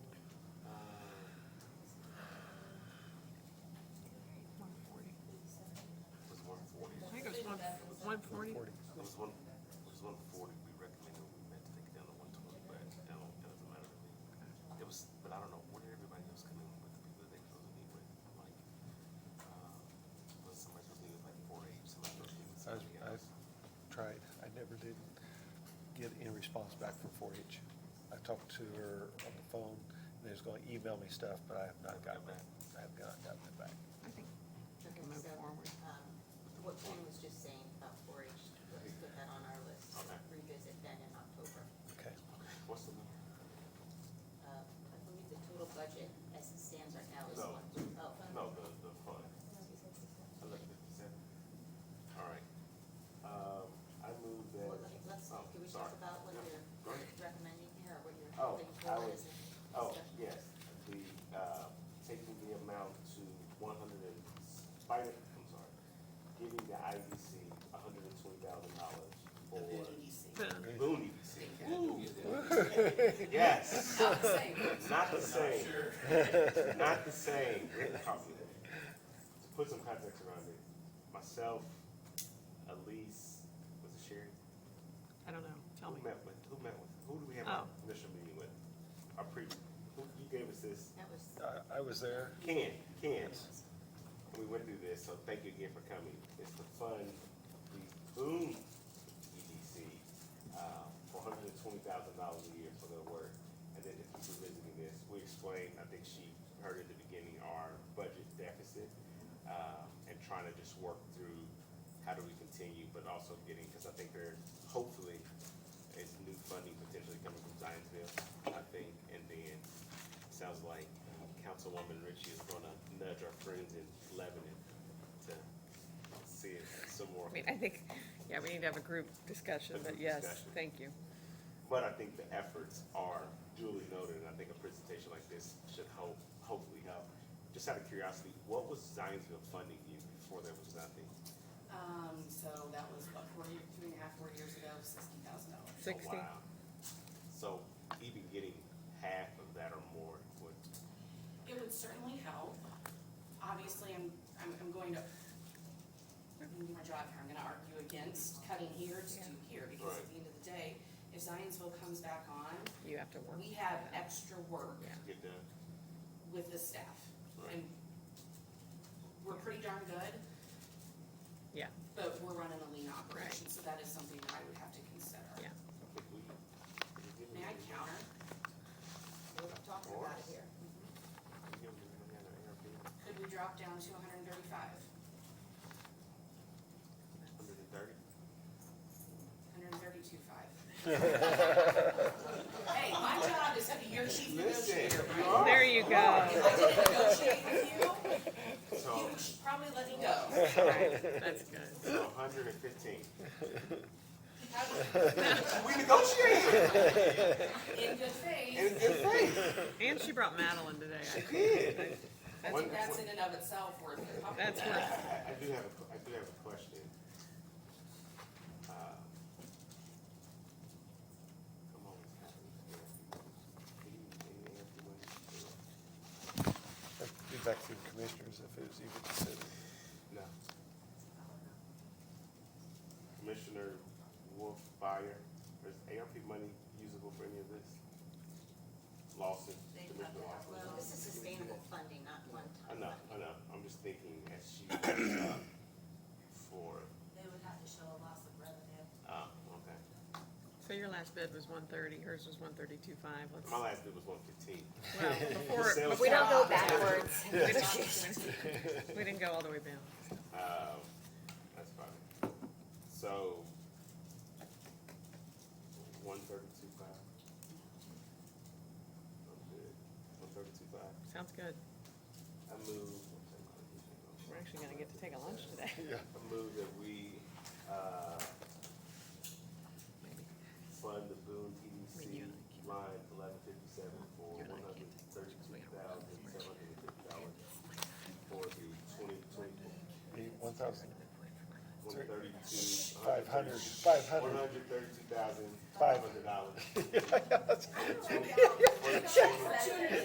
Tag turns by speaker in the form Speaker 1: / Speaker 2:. Speaker 1: Uh, uh,
Speaker 2: response back from four H. I talked to her on the phone, and they was gonna email me stuff, but I have not gotten that, I have not gotten it back.
Speaker 3: I think we can
Speaker 4: Okay,
Speaker 3: move
Speaker 4: so,
Speaker 3: forward.
Speaker 4: um, What Ken was just saying about four H, let's put that on our list, to
Speaker 1: Okay.
Speaker 4: revisit then in October.
Speaker 2: Okay,
Speaker 1: What's the number?
Speaker 4: Uh, I believe the total budget as it stands right now is
Speaker 1: No.
Speaker 4: one, oh,
Speaker 1: No, the, the fund, elected consent. All right. Um, I move that.
Speaker 4: Well, let- let's,
Speaker 1: oh,
Speaker 4: can we talk
Speaker 1: sorry.
Speaker 4: about what
Speaker 1: Yeah,
Speaker 4: you're
Speaker 1: Go ahead.
Speaker 4: recommending here, or what you're
Speaker 1: Oh,
Speaker 4: holding
Speaker 1: I
Speaker 4: forward
Speaker 1: would-
Speaker 4: as a
Speaker 1: Oh,
Speaker 4: discussion?
Speaker 1: yes, the, uh, taking the amount to one hundred and, by, the- I'm sorry, giving the IDC hundred and twenty thousand dollars for. Boonies. Yes,
Speaker 5: Not the same.
Speaker 1: not the same,
Speaker 5: Sure.
Speaker 1: not the same, Rick Carpenter. To put some context around it, myself, Elise, was it Sherry?
Speaker 3: I don't know,
Speaker 6: Oh,
Speaker 3: tell me.
Speaker 1: Who met with, who met with, who do we have
Speaker 3: Oh.
Speaker 1: our initial meeting with? Our pre, who, you gave us this
Speaker 4: That was,
Speaker 2: I, I was there,
Speaker 1: Ken, Ken, we went through this, so thank you again for coming. It's to fund the Boom EDC, uh, for hundred and twenty thousand dollars a year for their work. And then if you were visiting this, we explained, I think she heard at the beginning, our budget deficit, uh, and trying to just work through how do we continue, but also getting, because I think there, hopefully, is new funding potentially coming from Zionsville, I think, and then sounds like um, Councilwoman Ritchie is gonna nudge our friends in Lebanon to see if some more.
Speaker 6: I mean, I think, yeah, we need to have a group discussion,
Speaker 1: A
Speaker 6: but
Speaker 1: group
Speaker 6: yes,
Speaker 1: discussion.
Speaker 6: thank you.
Speaker 1: But I think the efforts are duly noted, and I think a presentation like this should hope, hopefully help. Just out of curiosity, what was Zionsville funding you before there was nothing?
Speaker 5: Um, so that was what, four years, two and a half, four years ago, sixty thousand dollars.
Speaker 1: Oh,
Speaker 6: Sixty.
Speaker 1: wow. So even getting half of that or more would,
Speaker 5: It would certainly help. Obviously, I'm, I'm, I'm going to, I'm gonna do my job here, I'm gonna argue against cutting here to do here, because at
Speaker 1: Right.
Speaker 5: the end of the day, if Zionsville comes back on,
Speaker 6: You have to work.
Speaker 5: we have
Speaker 6: that.
Speaker 5: extra work
Speaker 6: Yeah.
Speaker 1: get done,
Speaker 5: with the staff.
Speaker 1: Right.
Speaker 5: And we're pretty darn good,
Speaker 6: Yeah,
Speaker 5: but we're running a lean operation, so that is something that I would have to consider.
Speaker 6: yeah.
Speaker 1: I think we. we did-
Speaker 5: May I counter?
Speaker 4: we were talking about it here.
Speaker 1: we did- we had an ARP.
Speaker 5: Could we drop down to hundred and thirty-five?
Speaker 1: Hundred and thirty?
Speaker 5: Hundred and thirty-two five. Hey, my job is to be your chief negotiator,
Speaker 1: Listen, you
Speaker 5: right?
Speaker 1: are.
Speaker 6: There you go.
Speaker 5: If I didn't negotiate with you,
Speaker 1: So,
Speaker 5: you should probably let me go.
Speaker 6: All right, That's good.
Speaker 1: so hundred and fifteen.
Speaker 5: Probably
Speaker 1: We negotiated
Speaker 5: In good
Speaker 1: in
Speaker 5: faith,
Speaker 1: good faith.
Speaker 6: And she brought Madeline today. I-
Speaker 1: Good.
Speaker 5: I think that's in and of itself worth it.
Speaker 1: I,
Speaker 6: That's
Speaker 1: I
Speaker 6: worth
Speaker 1: do have, a que- I do have a question. Uh, Come on, it's happening. Can you, can you answer when it's due?
Speaker 2: I'd be back to the commissioners if it was even considered.
Speaker 1: No. Commissioner Wolf Fire, is ARP money usable for any of this? Lawson,
Speaker 4: They
Speaker 1: Commissioner
Speaker 4: talked about,
Speaker 1: Lawson.
Speaker 4: well, this is sustainable funding, not
Speaker 1: I
Speaker 4: one-time
Speaker 1: know, I
Speaker 4: funding.
Speaker 1: know, I'm just thinking as she goes up for,
Speaker 4: They would have to show a loss of revenue.
Speaker 1: uh, okay.
Speaker 6: So your last bid was one thirty, hers was one thirty-two five. Let's,
Speaker 1: My last bid was one fifteen.
Speaker 6: well, before,
Speaker 1: Sales
Speaker 6: before-
Speaker 7: We don't go backwards.
Speaker 6: we didn't- we didn't go all the way down.
Speaker 1: Um, that's fine. So, one thirty-two five. I'm good. One thirty-two five.
Speaker 6: Sounds good.
Speaker 1: I move.
Speaker 6: We're actually gonna get to take a lunch today,
Speaker 1: I move that we, uh,
Speaker 6: maybe.
Speaker 1: fund the Boone
Speaker 6: I
Speaker 1: TDC
Speaker 6: mean, you and I can't-
Speaker 1: line eleven fifty-seven for
Speaker 6: You
Speaker 1: one
Speaker 6: and I can't
Speaker 1: hundred
Speaker 6: take pictures 'cause we
Speaker 1: thirty-two thousand,
Speaker 6: gotta work.
Speaker 1: seven hundred and fifty dollars
Speaker 6: Oh
Speaker 1: for the twenty twenty-four.
Speaker 2: One thousand,
Speaker 1: One thirty-two.
Speaker 2: five hundred, five
Speaker 1: One
Speaker 2: hundred.
Speaker 1: hundred thirty-two thousand, five
Speaker 2: Five.
Speaker 1: hundred dollars.
Speaker 5: Opportunity